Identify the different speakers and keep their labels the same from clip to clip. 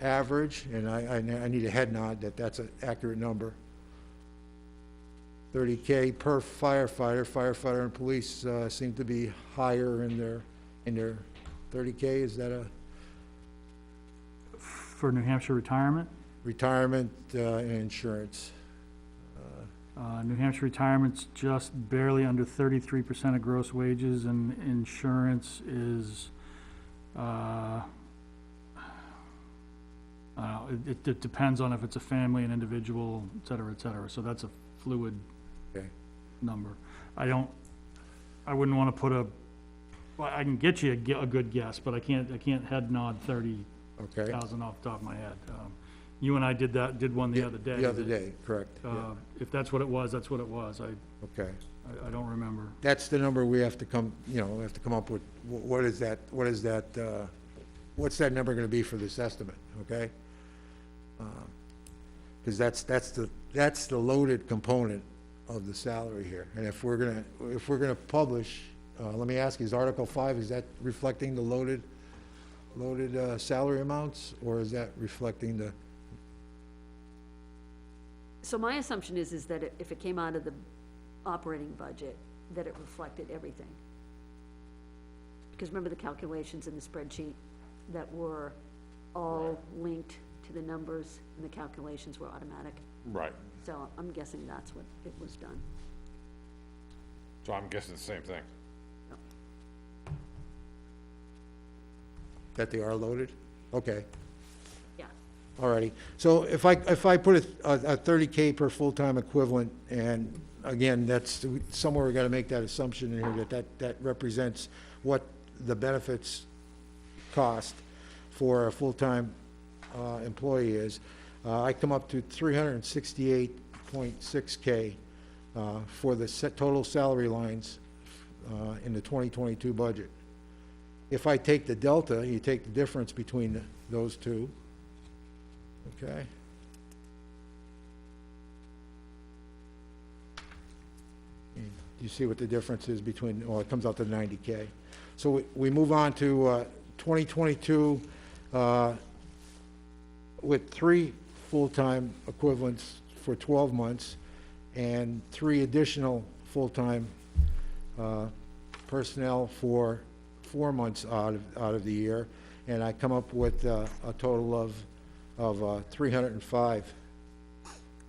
Speaker 1: average, and I, I, I need a head nod that that's an accurate number. Thirty K per firefighter, firefighter and police, uh, seem to be higher in their, in their, thirty K, is that a
Speaker 2: for New Hampshire retirement.
Speaker 1: retirement, uh, and insurance?
Speaker 2: Uh, New Hampshire retirement's just barely under thirty-three percent of gross wages, and insurance is, uh, I don't know, it, it- it depends on if it's a family, an individual, et cetera, et cetera, so that's a fluid
Speaker 1: Okay.
Speaker 2: number. I don't, I wouldn't wanna put a, well, I can get you a, gu- a good guess, but I can't, I can't head nod thirty
Speaker 1: Okay?
Speaker 2: thousand off the top of my head. Um, You and I did that, did one Uh, the other day.
Speaker 1: The other
Speaker 2: that-
Speaker 1: day, correct, yeah,
Speaker 2: uh, If that's what it was, that's what it was. I,
Speaker 1: okay.
Speaker 2: I- I don't remember.
Speaker 1: That's the number we have to come, you know, we have to come up with, Wh- what is that, what is that, uh, what's that number gonna be for this estimate, okay? Because that's, that's the, that's the loaded component of the salary here. And if we're gonna, if we're gonna publish, uh, let me ask, is Article Five, is that reflecting the loaded, loaded uh, salary amounts? Or is that reflecting the,
Speaker 3: So my assumption is, is that it- if it came out of the operating budget, that it reflected everything. Because remember the calculations in the spreadsheet that were all linked to the numbers, and the calculations were automatic?
Speaker 4: Right,
Speaker 3: So I'm guessing that's what it was done.
Speaker 4: so I'm guessing the same thing.
Speaker 1: that they are loaded? Okay.
Speaker 3: Yeah.
Speaker 1: Alrighty, so if I, if I put a, a thirty K per full-time equivalent, and again, that's, somewhere we gotta make that assumption in here, that that, that represents what the benefits cost for a full-time, uh, employee is, uh, I come up to three hundred and sixty-eight point six K, uh, for the set, total salary lines, uh, in the twenty twenty-two budget. If I take the delta, you take the difference between the- those two, Okay. And You see what the difference is between, well, it comes out to ninety K. So we, we move on to, uh, twenty twenty-two, uh, with three full-time equivalents for twelve months and three additional full-time, uh, personnel for four months out of, out of the year. And I come up with, uh, a total of, of, uh, three hundred and five.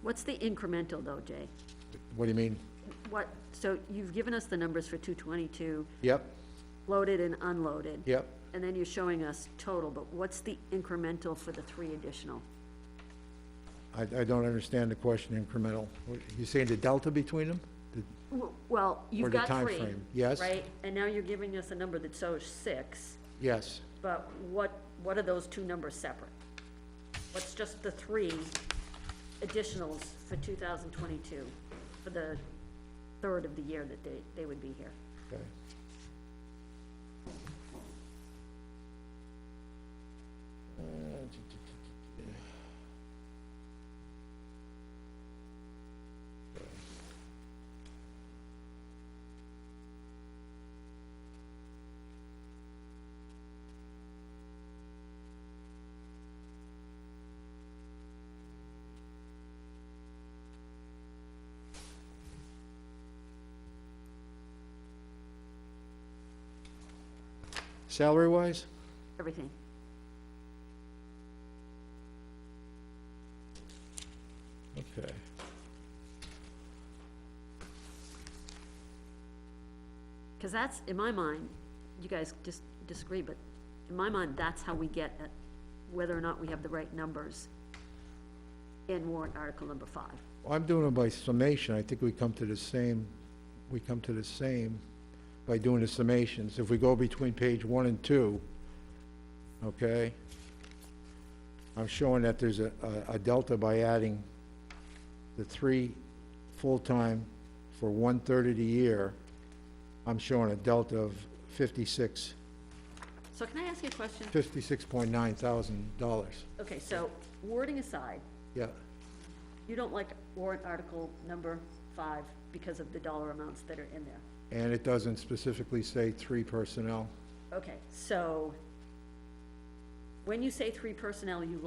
Speaker 3: What's the incremental though, Jay?
Speaker 1: What do you mean?
Speaker 3: What, so you've given us the numbers for two twenty-two,
Speaker 1: Yep,
Speaker 3: loaded and unloaded.
Speaker 1: yep.
Speaker 3: And then you're showing us total, but what's the incremental for the three additional?
Speaker 1: I, I don't understand the question incremental. What- You saying the delta between them? The-
Speaker 3: W- Well,
Speaker 1: Or
Speaker 3: you've
Speaker 1: the
Speaker 3: got
Speaker 1: time
Speaker 3: three.
Speaker 1: frame, yes.
Speaker 3: Right, and now you're giving us a number that shows six,
Speaker 1: Yes,
Speaker 3: but what, what are those two numbers separate? What's just the three additionals for two thousand twenty-two, for the third of the year that they, they would be here?
Speaker 1: okay. Salary-wise?
Speaker 3: Everything.
Speaker 1: Okay.
Speaker 3: Because that's, in my mind, you guys just disagree, but in my mind, that's how we get at whether or not we have the right numbers in warrant article number five.
Speaker 1: Well, I'm doing it by summation. I think we come to the same, we come to the same by doing the summations. If we go between page one and two, okay? I'm showing that there's a, a- a delta by adding the three full-time for one-third of the year. I'm showing a delta of fifty-six,
Speaker 3: So can I ask you a question?
Speaker 1: fifty-six point nine thousand dollars.
Speaker 3: Okay, so wording aside,
Speaker 1: Yeah,
Speaker 3: you don't like warrant article number five because of the dollar amounts that are in there.
Speaker 1: and it doesn't specifically say three personnel.
Speaker 3: Okay, so when you say three personnel, you